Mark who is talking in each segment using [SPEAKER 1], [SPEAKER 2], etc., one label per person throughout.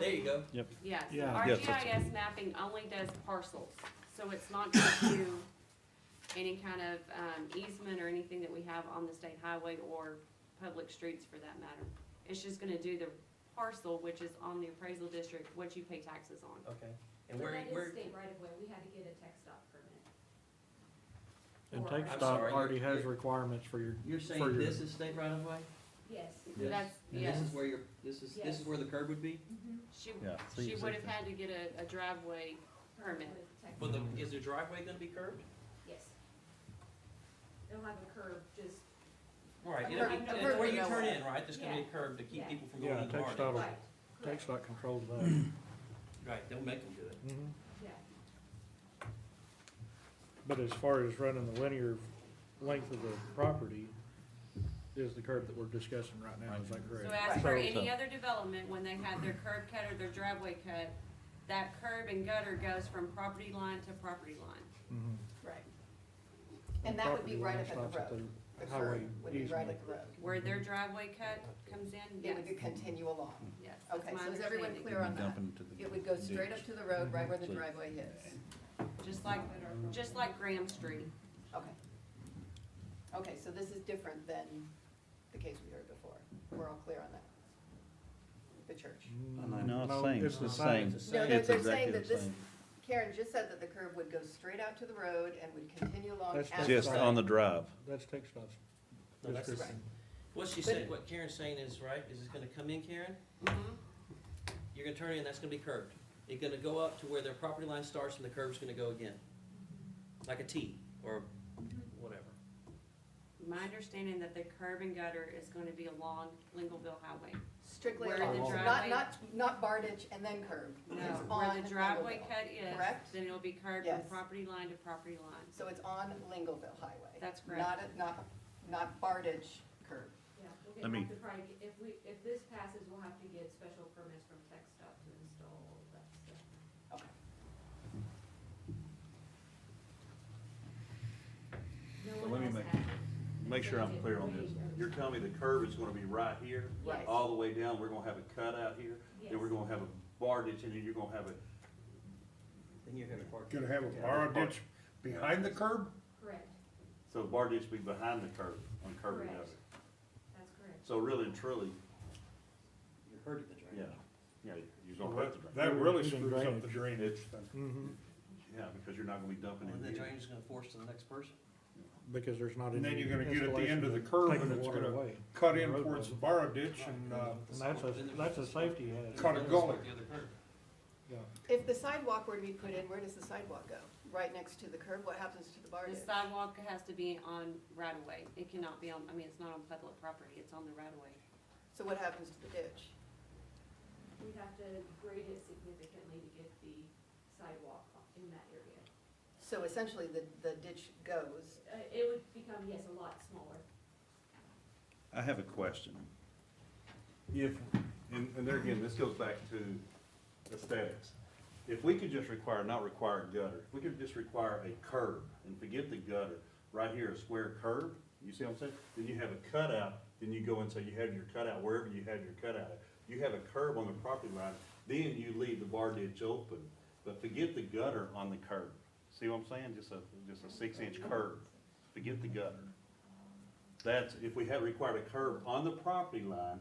[SPEAKER 1] There you go.
[SPEAKER 2] Yep.
[SPEAKER 3] Yes,
[SPEAKER 2] Yeah.
[SPEAKER 3] our
[SPEAKER 4] Yes, that's-
[SPEAKER 3] GIS mapping only does parcels, so it's not gonna do any kind of, um, easement or anything that we have on the state highway or public streets for that matter. It's just gonna do the parcel, which is on the appraisal district, what you pay taxes on.
[SPEAKER 1] Okay.
[SPEAKER 5] But
[SPEAKER 1] And where,
[SPEAKER 5] that
[SPEAKER 1] where,
[SPEAKER 5] is state right of way, we had to get a tech stop permit.
[SPEAKER 2] And
[SPEAKER 5] Or-
[SPEAKER 2] Tech
[SPEAKER 1] I'm
[SPEAKER 2] Stop
[SPEAKER 1] sorry,
[SPEAKER 2] already
[SPEAKER 1] you're-
[SPEAKER 2] has
[SPEAKER 1] you're-
[SPEAKER 2] requirements for your,
[SPEAKER 1] you're
[SPEAKER 2] For
[SPEAKER 1] saying
[SPEAKER 2] your-
[SPEAKER 1] this is state right of way?
[SPEAKER 5] Yes.
[SPEAKER 1] This?
[SPEAKER 3] That's-
[SPEAKER 1] And
[SPEAKER 3] yes.
[SPEAKER 1] This is where your, this is, this
[SPEAKER 5] Yes.
[SPEAKER 1] is where the curb would be?
[SPEAKER 3] She,
[SPEAKER 4] Yeah, so
[SPEAKER 3] she
[SPEAKER 4] you
[SPEAKER 3] would've
[SPEAKER 4] said-
[SPEAKER 3] had to get a, a driveway permit.
[SPEAKER 5] With tech-
[SPEAKER 1] Well, the, is the driveway gonna be curved?
[SPEAKER 5] Yes. They'll have a curb, just,
[SPEAKER 1] Right,
[SPEAKER 5] A
[SPEAKER 1] it'll be,
[SPEAKER 5] curb, no
[SPEAKER 1] it's where
[SPEAKER 5] curb,
[SPEAKER 1] you
[SPEAKER 5] no
[SPEAKER 1] turn
[SPEAKER 5] way.
[SPEAKER 1] in, right? There's gonna be a curb to keep
[SPEAKER 5] Yeah.
[SPEAKER 1] people from
[SPEAKER 2] Yeah,
[SPEAKER 1] going in the garden.
[SPEAKER 2] Tech Stop.
[SPEAKER 5] right,
[SPEAKER 2] Tech
[SPEAKER 5] correct,
[SPEAKER 2] Stop controls that. Mm-hmm.
[SPEAKER 1] Right, don't make them do it.
[SPEAKER 5] yeah.
[SPEAKER 2] But as far as running the linear length of the property, is the curve that we're discussing right now, is that
[SPEAKER 3] So
[SPEAKER 2] correct?
[SPEAKER 3] as for
[SPEAKER 4] Right.
[SPEAKER 3] any other development, when they had their curb cut or their driveway cut, that curb and gutter goes from property line to property line.
[SPEAKER 2] Mhm.
[SPEAKER 6] Right. And that would
[SPEAKER 2] Property
[SPEAKER 6] be right
[SPEAKER 2] line
[SPEAKER 6] up at the
[SPEAKER 2] stops
[SPEAKER 6] road. The
[SPEAKER 2] highway
[SPEAKER 6] curb would be right
[SPEAKER 2] easement.
[SPEAKER 6] at the road.
[SPEAKER 3] Where
[SPEAKER 4] Mhm.
[SPEAKER 3] their driveway cut comes in,
[SPEAKER 6] It
[SPEAKER 3] yes,
[SPEAKER 6] would continue along.
[SPEAKER 3] yes. that's
[SPEAKER 6] Okay,
[SPEAKER 3] my
[SPEAKER 6] so is everyone
[SPEAKER 3] understanding.
[SPEAKER 6] clear on that?
[SPEAKER 4] Dumping to the
[SPEAKER 6] It would go straight up
[SPEAKER 4] ditch.
[SPEAKER 6] to the road, right where the
[SPEAKER 4] So-
[SPEAKER 6] driveway hits.
[SPEAKER 3] Just like, just like Graham Street.
[SPEAKER 6] Okay. Okay, so this is different than the case we heard before. We're all clear on that? The church.
[SPEAKER 2] Mm,
[SPEAKER 4] No, it's same, it's the same.
[SPEAKER 6] No, they're-
[SPEAKER 4] It's
[SPEAKER 6] they're saying
[SPEAKER 4] exactly
[SPEAKER 6] that
[SPEAKER 4] the
[SPEAKER 6] this-
[SPEAKER 4] same.
[SPEAKER 6] Karen just said that the curb would go straight out to the road and would continue along.
[SPEAKER 2] That's
[SPEAKER 6] as
[SPEAKER 4] Just
[SPEAKER 6] road.
[SPEAKER 4] on the drive.
[SPEAKER 2] That's Tech Stop's
[SPEAKER 1] No, that's-
[SPEAKER 2] description.
[SPEAKER 1] What she said, what Karen's saying is, right, is it's gonna come in, Karen?
[SPEAKER 5] Mm-hmm.
[SPEAKER 3] Mhm.
[SPEAKER 1] You're gonna turn in, that's gonna be curved. It's gonna go up to where their property line starts and the curb's gonna go again. Like a T or whatever.
[SPEAKER 3] My understanding that the curb and gutter is gonna be along Lingleville Highway.
[SPEAKER 6] Strictly
[SPEAKER 3] Where
[SPEAKER 6] along,
[SPEAKER 2] the
[SPEAKER 6] not,
[SPEAKER 3] driveway-
[SPEAKER 6] not, not Bardage and then curb.
[SPEAKER 3] No,
[SPEAKER 6] It's
[SPEAKER 3] where
[SPEAKER 6] on
[SPEAKER 3] the driveway
[SPEAKER 6] Lingleville.
[SPEAKER 3] cut is,
[SPEAKER 6] correct?
[SPEAKER 3] then it'll be curved from
[SPEAKER 6] Yes.
[SPEAKER 3] property line to property line.
[SPEAKER 6] So it's on Lingleville Highway.
[SPEAKER 3] That's correct.
[SPEAKER 6] Not, a- not, not Bardage curb.
[SPEAKER 5] Yeah,
[SPEAKER 4] I
[SPEAKER 5] we'll
[SPEAKER 4] mean-
[SPEAKER 5] have to probably, get- if we, if this passes, we'll have to get special permits from tech stop to install all of that stuff.
[SPEAKER 6] Okay.
[SPEAKER 5] No
[SPEAKER 4] So
[SPEAKER 5] one
[SPEAKER 4] let me
[SPEAKER 5] else
[SPEAKER 4] make-
[SPEAKER 5] has it.
[SPEAKER 4] Make sure I'm clear on this. You're telling me the curb is gonna be right here,
[SPEAKER 6] Yes.
[SPEAKER 4] all the way down, we're gonna have a cutout here, then we're
[SPEAKER 5] Yes.
[SPEAKER 4] gonna have a bardage, and then you're gonna have a
[SPEAKER 1] Then you're gonna park.
[SPEAKER 7] Gonna have a borrow ditch behind the curb?
[SPEAKER 5] Correct,
[SPEAKER 4] So Bardich be behind the curb, on curving
[SPEAKER 5] Correct.
[SPEAKER 4] up.
[SPEAKER 5] that's correct.
[SPEAKER 4] So really and truly,
[SPEAKER 1] You heard of the drain.
[SPEAKER 4] yeah, yeah, you're gonna hurt the drain.
[SPEAKER 7] That really
[SPEAKER 2] Even
[SPEAKER 7] screws up the
[SPEAKER 2] drainage.
[SPEAKER 7] drainage thing.
[SPEAKER 2] Mhm.
[SPEAKER 4] Yeah, because you're not gonna be dumping
[SPEAKER 1] And the
[SPEAKER 4] in here.
[SPEAKER 1] drain is gonna force to the next person.
[SPEAKER 2] Because there's not any.
[SPEAKER 7] And then you're gonna get at the end of the
[SPEAKER 2] installation
[SPEAKER 7] curb
[SPEAKER 2] taking
[SPEAKER 7] and
[SPEAKER 2] the
[SPEAKER 7] it's
[SPEAKER 2] water
[SPEAKER 7] gonna
[SPEAKER 2] away.
[SPEAKER 7] Cut in
[SPEAKER 2] Roadway.
[SPEAKER 7] towards the borrow ditch and, uh,
[SPEAKER 2] And that's a, that's a safety hazard.
[SPEAKER 7] Cut. a gully.
[SPEAKER 1] The other curb.
[SPEAKER 2] Yeah.
[SPEAKER 6] If the sidewalk were to be put in, where does the sidewalk go? Right next to the curb, what happens to
[SPEAKER 3] The
[SPEAKER 6] the Bardage?
[SPEAKER 3] sidewalk has to be on right of way. It cannot be on, I mean, it's not on public property, it's on the right of way.
[SPEAKER 6] So what happens to the ditch?
[SPEAKER 5] We'd have to grade it significantly to get the sidewalk in that area.
[SPEAKER 6] So essentially, the, the ditch goes,
[SPEAKER 5] Uh, it would become, yes, a lot smaller.
[SPEAKER 4] I have a question. If, and, and there again, this goes back to aesthetics. If we could just require, not require a gutter, if we could just require a curb and forget the gutter, right here, a square curb, you see what I'm saying? Then you have a cutout, then you go and say you have your cutout wherever you have your cutout. at. You have a curb on the property line, then you leave the bar ditch open, but forget the gutter on the curb. See what I'm saying? Just a, just a six-inch curb. Forget the gutter. That's, if we had required a curb on the property line,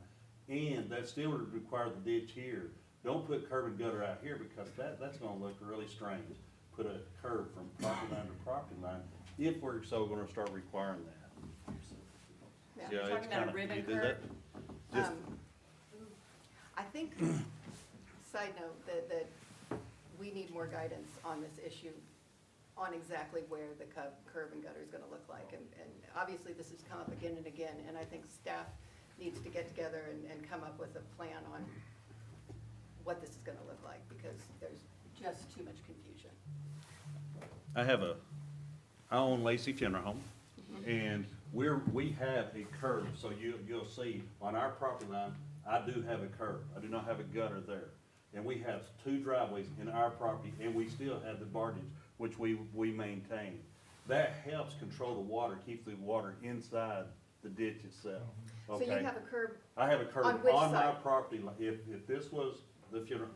[SPEAKER 4] and that still would require the ditch here, don't put curb and gutter out here, because that, that's gonna look really strange. Put a curb from property line to property line, if we're so gonna start requiring that.
[SPEAKER 6] Yeah.
[SPEAKER 4] Yeah,
[SPEAKER 3] You're
[SPEAKER 4] it's
[SPEAKER 3] talking about a
[SPEAKER 4] kinda-
[SPEAKER 3] ribbon
[SPEAKER 4] you do that- Just,
[SPEAKER 6] Um, I think, side note, that, that we need more guidance on this issue, on exactly where the cub, curb and gutter is gonna look like. And, and obviously, this has come up again and again, and I think staff needs to get together and, and come up with a plan on what this is gonna look like, because there's just too much confusion.
[SPEAKER 4] I have a, I own Lacey Funeral Home,
[SPEAKER 6] Mm-hmm.
[SPEAKER 4] and we're, we have a curb, so you, you'll see on our property line, I do have a curb, I do not have a gutter there. And we have two driveways in our property, and we still have the barges, which we, we maintain. That helps control the water, keeps the water inside the ditch itself,
[SPEAKER 6] So you
[SPEAKER 4] okay?
[SPEAKER 6] have a curb
[SPEAKER 4] I have a curb
[SPEAKER 6] on which
[SPEAKER 4] on my
[SPEAKER 6] side?
[SPEAKER 4] property line, if, if this was the funeral,